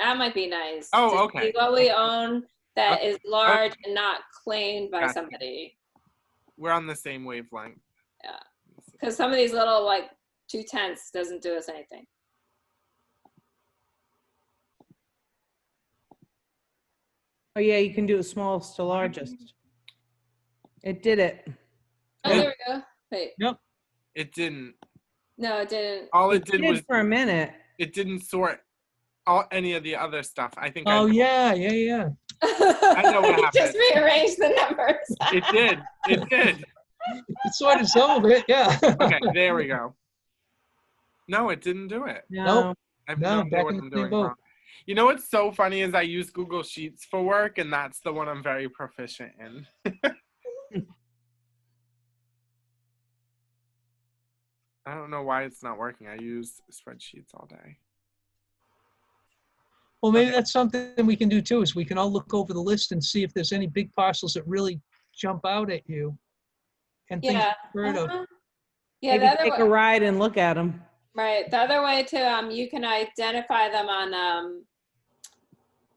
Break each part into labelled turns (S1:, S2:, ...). S1: That might be nice.
S2: Oh,
S1: To
S2: okay.
S1: see What we own that is large and not claimed by
S2: Gotcha.
S1: somebody.
S2: We're on the same wavelength.
S1: Yeah. Because some of these little like two tenths doesn't do us anything.
S3: Oh, yeah, you can do the smallest to largest. It did it.
S1: Oh, there we go. Wait,
S2: It didn't.
S1: no, it didn't.
S2: All it
S3: It
S2: did was
S3: did for a minute.
S2: it didn't sort all any of the other stuff. I think
S4: Oh,
S2: I,
S4: yeah, yeah, yeah.
S1: I
S2: know what
S1: Just rearrange the numbers.
S2: it did. It did.
S4: It sorted some of it, yeah.
S2: Okay, there we go. No, it didn't do it.
S3: No.
S2: I have
S4: No,
S2: no, idea
S4: back
S2: what
S4: in
S2: I'm
S4: the same
S2: doing
S4: boat.
S2: wrong. You know what's so funny is I use Google Sheets for work, and that's the one I'm very proficient in. I don't know why it's not working. I use spreadsheets all day.
S4: Well, maybe
S2: Okay.
S4: that's something we can do too, is we can all look over the list and see if there's any big parcels that really jump out at you. And things
S1: Yeah.
S4: you've heard of.
S1: Uh-huh. Yeah,
S3: Maybe
S1: the other
S3: take
S1: way,
S3: a ride and look at them.
S1: right. The other way to um, you can identify them on um,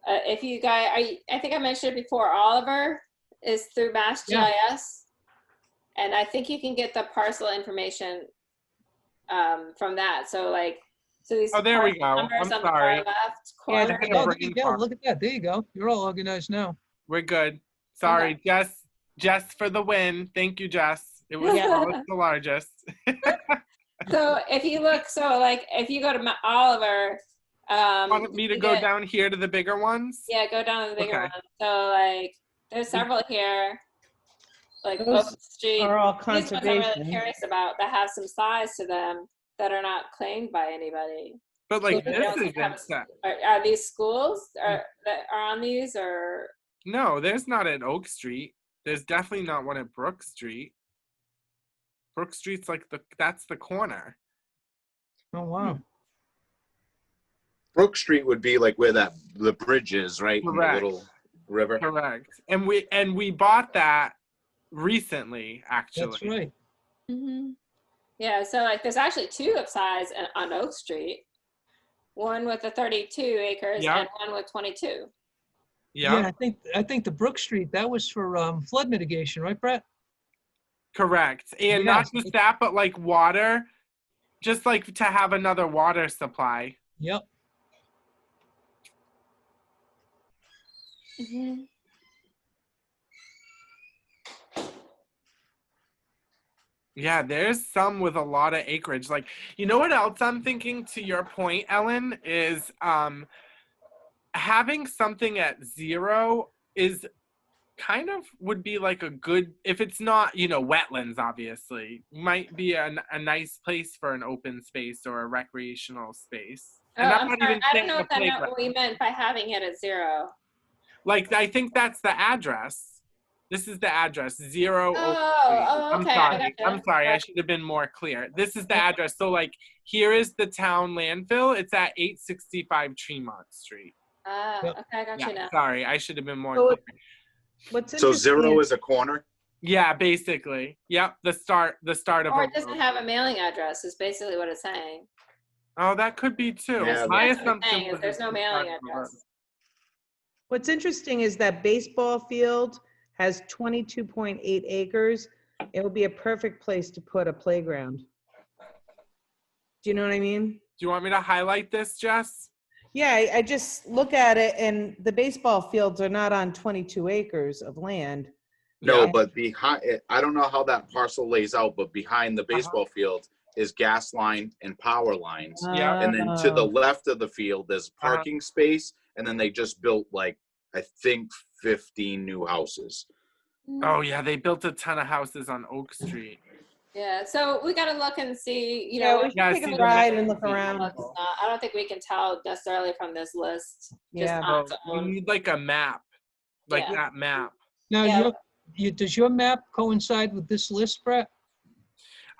S1: uh, if you guys. I I think I mentioned it before. Oliver is through MassGIS,
S4: Yeah.
S1: and I think you can get the parcel information um, from that. So like, so these.
S2: Oh, there we
S1: parcel
S2: go.
S1: numbers
S2: I'm
S1: on the
S2: sorry.
S1: far left
S3: Yeah,
S1: corner.
S2: I think
S4: Oh,
S2: I'm
S4: there
S2: brain
S4: you go.
S2: fart.
S4: Look at that. There you go. You're all organized now.
S2: We're good. Sorry, Jess. Jess for the win. Thank you, Jess. It was
S1: Yeah.
S2: always the largest.
S1: So if you look, so like if you go to my, Oliver, um,
S2: Want me to
S1: you
S2: go
S1: get-
S2: down here to the bigger ones?
S1: Yeah, go down to the bigger
S2: Okay. Mm.
S1: one. So like, there's several here, like
S3: Those
S1: Oak Street.
S3: Are all
S1: These ones I'm really
S3: conservation.
S1: curious about that have some size to them that are not claimed by anybody.
S2: But
S1: So
S2: like
S1: we
S2: this
S1: don't
S2: is
S1: have a-
S2: not set.
S1: Are, are these schools are,
S2: Mm.
S1: that are on these or?
S2: No, there's not at Oak Street. There's definitely not one at Brook Street. Brook Street's like the that's the corner.
S4: Oh,
S2: Hmm,
S4: wow.
S5: Brook Street would be like where that, the bridge is, right? in the
S2: Correct.
S5: Little river.
S2: Correct. And we and we bought that recently actually.
S4: That's right.
S1: Yeah, so like there's actually two of size on- on Oak Street. One with the 32 acres
S2: Yeah.
S1: and one with 22.
S2: Yeah.
S4: I think, I think the Brook Street, that was for um, flood mitigation, right, Brett?
S2: Correct. And not
S4: Yes.
S2: just that but like water just like to have another water supply.
S4: Yep.
S3: Mm-hmm.
S2: Yeah, there's some with a lot of acreage. Like, you know what else I'm thinking to your point, Ellen, is um having something at zero is kind of would be like a good if it's not, you know, wetlands obviously, might be an, a nice place for an open space or a recreational space.
S1: Oh,
S2: And I'm
S1: I'm
S2: not
S1: sorry.
S2: even
S1: I don't
S2: saying
S1: know
S2: a
S1: if that meant
S2: playground.
S1: what we meant by having it at zero.
S2: Like I think that's the address. This is the address. Zero. Oak Street.
S1: Oh, oh,
S2: I'm
S1: okay. I
S2: sorry.
S1: gotcha.
S2: I'm sorry. I
S1: Right.
S2: should have been more clear. This is the address. So like here is the town landfill. It's at 865 Tremont Street.
S1: Ah,
S4: Yep.
S1: okay, I got you
S2: Yeah,
S1: now.
S2: sorry. I should have been more
S3: So
S2: clear.
S3: it- What's
S5: So zero
S3: interesting
S5: is a corner?
S2: Yeah, basically. Yep, the start the start of
S1: Or
S2: a
S1: it doesn't
S2: road.
S1: have a mailing address is basically what it's saying.
S2: Oh, that could be too.
S5: Yeah,
S2: My
S1: That's what it's
S2: assumption
S1: saying, is
S2: was
S1: there's
S2: it's
S1: no
S2: the
S1: mailing
S2: start of a
S1: address.
S2: road.
S3: What's interesting is that baseball field has 22.8 acres. It would be a perfect place to put a playground. Do you know what I mean?
S2: Do you want me to highlight this, Jess?
S3: Yeah, I, I just look at it and the baseball fields are not on 22 acres of land.
S5: No,
S3: Yeah.
S5: but behind, I don't know how that parcel lays out, but behind the baseball field is gas line and power lines.
S2: Yeah.
S5: And then to the
S3: Oh.
S5: left of the field, there's
S2: Uh-huh.
S5: parking space, and then they just built like, I think fifteen new houses.
S1: Mm.
S2: Oh yeah, they built a ton of houses on Oak Street.
S1: Yeah, so we gotta look and see, you
S3: Yeah,
S1: know.
S3: we
S1: what-
S3: should
S2: Yeah, I
S3: take
S2: see
S3: a
S2: the
S3: ride
S2: map.
S3: and look
S2: Yeah.
S3: around.
S1: what's not. I don't think we can tell necessarily from this list. just
S3: Yeah.
S1: on
S2: Oh,
S1: its
S2: we
S1: own.
S2: need like a map, like
S1: Yeah.
S2: that map.
S4: Now,
S1: Yeah.
S4: your- you, does your map coincide with this list, Brett?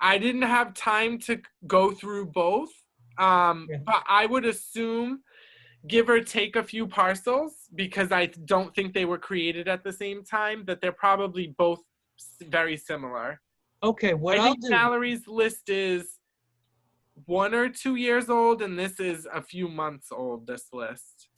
S2: I didn't have time to go through both, um,
S4: Yeah.
S2: but I would assume, give or take a few parcels, because I don't think they were created at the same time. That they're probably both s- very similar.
S4: Okay, what
S2: I
S4: I'll
S2: think
S4: do.
S2: Mallory's list is one or two years old, and this is a few months old. This list.